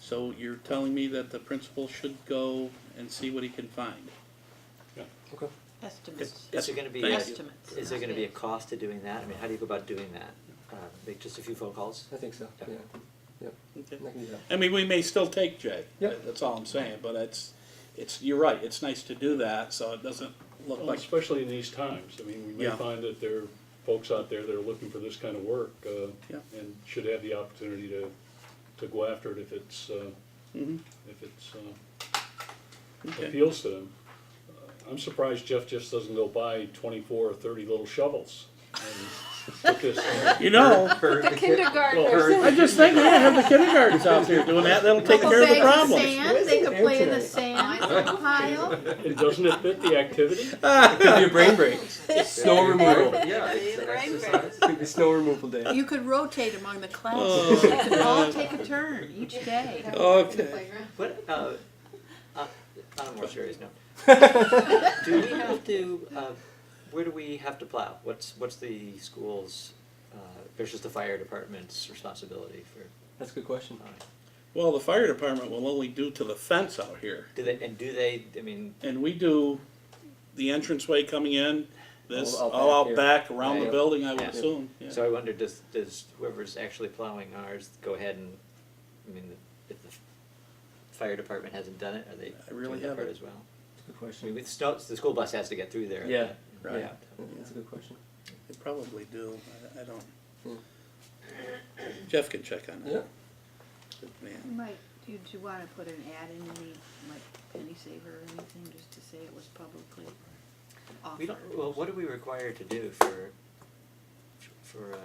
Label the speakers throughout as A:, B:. A: So you're telling me that the principal should go and see what he can find?
B: Okay.
C: Estimates.
D: Is there gonna be,
A: Thank
D: is
A: you.
C: Estimates.
D: there gonna be a cost to doing that? I mean, how do you go about doing that? Uh, Make just a few phone calls?
B: I think so, yeah,
D: Yeah.
B: yep,
A: Okay.
B: I can do that.
A: I mean, we may still take Jay.
B: Yep.
A: That's all I'm saying, but it's, it's, you're right, it's nice to do that, so it doesn't look
E: Well,
A: like,
E: especially in these times, I mean, we may
A: Yeah.
E: find that there are folks out there that are looking for this kind of work, uh,
A: Yeah.
E: and should have the opportunity to, to go after it if it's, uh,
A: Mhm.
E: if it's, uh,
A: Okay.
E: appeals to them. Uh, I'm surprised Jeff just doesn't go buy twenty-four or thirty little shovels and put this, uh,
A: you know,
D: For
F: The kindergartners.
D: Well,
A: I just think, yeah, have the kindergartens out there doing that, that'll take
F: Couple
A: care of the
F: bags of
A: problem.
F: sand,
B: Where's
F: They
B: the
F: could
B: air
F: play in the
B: today?
F: sand
C: Oh,
F: pile.
E: and doesn't it fit the activity?
B: It could be a brain break, snow removal,
D: Yeah, it's an exercise.
B: could be snow removal day.
C: You could rotate among the classes.
A: Oh,
C: They could all take a turn each day.
A: Okay.
D: What, uh, uh, on a more serious note. Do we have to, uh, where do we have to plow? What's, what's the school's, uh, versus the fire department's responsibility for, uh,
B: That's a good question.
D: plowing?
A: Well, the fire department will only do to the fence out here,
D: do they, and do they, I mean,
A: and we do the entranceway coming in, this,
B: All out
A: all
B: back
A: out
B: here.
A: back, around the
B: Yeah.
A: building, I would
D: Yeah.
A: assume, yeah.
D: So I wonder, does, does whoever's actually plowing ours go ahead and, I mean, if the fire department hasn't done it, are they
A: I really
D: doing that part
A: haven't.
D: as well?
B: That's a good
D: I mean,
B: question.
D: with snow, the school bus has to get through there.
B: Yeah,
A: right.
D: Yeah.
B: That's a good question.
A: They probably do, I, I don't.
B: Hmm.
A: Jeff can check on
B: Yeah.
A: that. Yeah.
C: You might, do you- do you wanna put an ad in, any, like penny saver or anything, just to say it was publicly
D: We don't,
C: offered?
D: well, what are we required to do for, for, uh,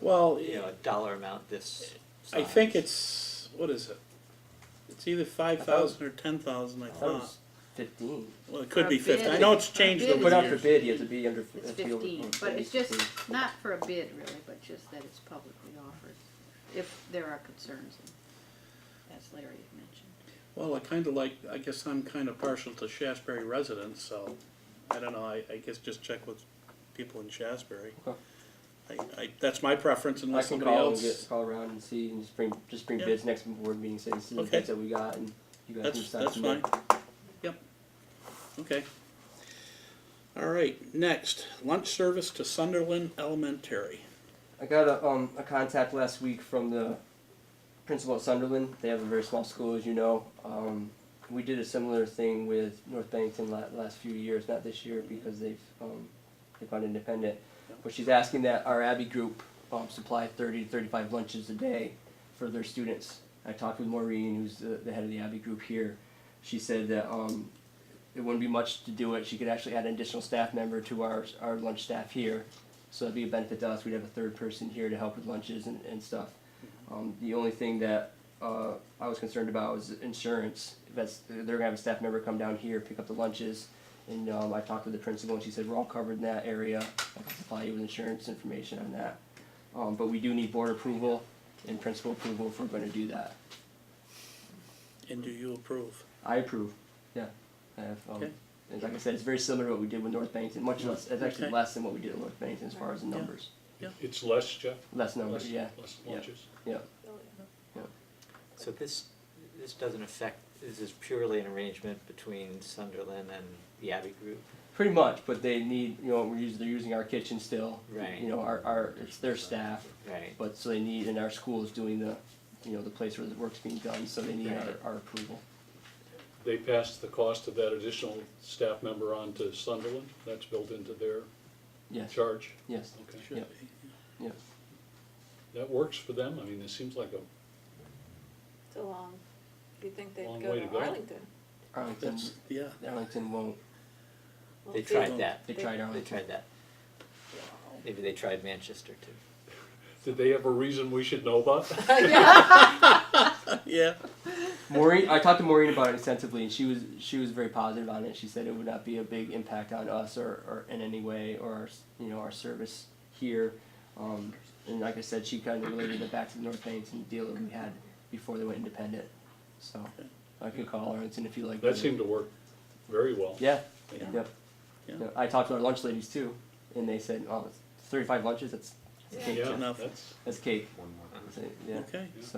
A: Well,
D: you know, a dollar amount this
A: I think
D: size?
A: it's, what is it? It's either
B: thought
A: five
B: it
A: thousand or ten thousand, I
B: I thought it
A: thought.
B: was fifteen.
A: Well, it could
C: Our
A: be fifty, I
C: bid
A: know
C: is-
A: it's changed
C: our bid
A: over
B: Put
A: the
B: out for
A: years.
B: bid, you have to be under.
C: It's
B: have to be over-
C: fifteen, but it's just not for a bid really, but just that it's publicly offered, if there are concerns, and as Larry had mentioned.
A: Well, I kinda like, I guess I'm kinda partial to Shasberry residents, so, I don't know, I, I guess just check with people in Shasberry.
B: Okay.
A: I, I, that's my preference
B: I
A: unless
B: can
A: somebody
B: call and
A: else.
B: get, call around and see and just bring, just bring
A: Yeah.
B: bids next board meeting, say this is the
A: Okay.
B: bids that we got and you guys can
A: That's,
B: decide.
A: that's
B: from there.
A: fine. Yep. Okay. All right, next, lunch service to Sunderland Elementary.
B: I got a, um, a contact last week from the principal at Sunderland. They have a very small school, as you know. Um, we did a similar thing with North Bennington la- last few years, not this year because they've um, they've gone independent. But she's asking that our Abbey group um, supply 30 to 35 lunches a day for their students. I talked with Maureen, who's the, the head of the Abbey group here. She said that um, it wouldn't be much to do it. She could actually add an additional staff member to our, our lunch staff here. So it'd be a benefit to us. We'd have a third person here to help with lunches and, and stuff.
A: Mm-hmm.
B: Um, the only thing that uh, I was concerned about was insurance. That's they're gonna have a staff member come down here pick up the lunches, and um, I talked with the principal and she said we're all covered in that area. I can supply you with insurance information on that. Um, but we do need board approval and principal approval if we're going to do that.
A: And do you approve?
B: I approve. Yeah, I have. Um,
A: Okay.
B: and like I said, it's very similar to what we did with North Bennington. Much less, it's actually
A: Okay.
B: less than what we did at North Bennington as far as the
A: Yeah.
B: numbers.
E: It's less, Jeff?
B: Less numbers,
E: Less-
B: yeah.
E: Less
B: Yeah.
E: lunches?
B: Yeah.
D: So this, this doesn't affect, this is purely an arrangement between Sunderland and the Abbey Group?
B: Pretty much, but they need, you know, we're using, they're using our kitchen still.
D: Right.
B: You know, our, our, it's their staff,
D: Right,
B: but so they need, and our school is doing the, you know, the place where the work's being done, so they need our,
D: Right.
B: our approval.
E: They passed the cost of that additional staff member on to Sunderland, that's built into their
B: Yes,
E: charge?
B: yes,
E: Okay.
A: Should
B: Yep.
A: be.
B: yeah.
E: That works for them, I mean, it seems like a,
G: It's a long, you'd think
E: Long
G: they'd
E: way to
G: go to
E: go.
G: Arlington.
B: Arlington,
A: That's, yeah.
B: Arlington won't,
G: Well,
D: they
G: if
D: tried that,
B: they tried
D: they
B: Arlington.
D: tried that. Maybe they tried Manchester too.
E: did they have a reason we should know about?
A: Yeah.
B: Maureen, I talked to Maureen about it extensively, and she was she was very positive on it. She said it would not be a big impact on us or, or in any way or our, s- you know our service here. Um, and like I said, she kind of related it back to the North Bennington deal that we had before they went independent. So I could call Arlington if you like.
E: That seemed to work very well.
B: Yeah.
A: Yeah.
B: Yep.
A: Yeah.
B: Yep. I talked to our lunch ladies too, and they said, "Oh, it's 35 lunches. That's that's
G: Yeah.
B: cake.
E: Yeah,
A: Enough.
E: that's.
B: That's cake."
H: one more.
B: I said, yeah.
A: Okay.
B: So-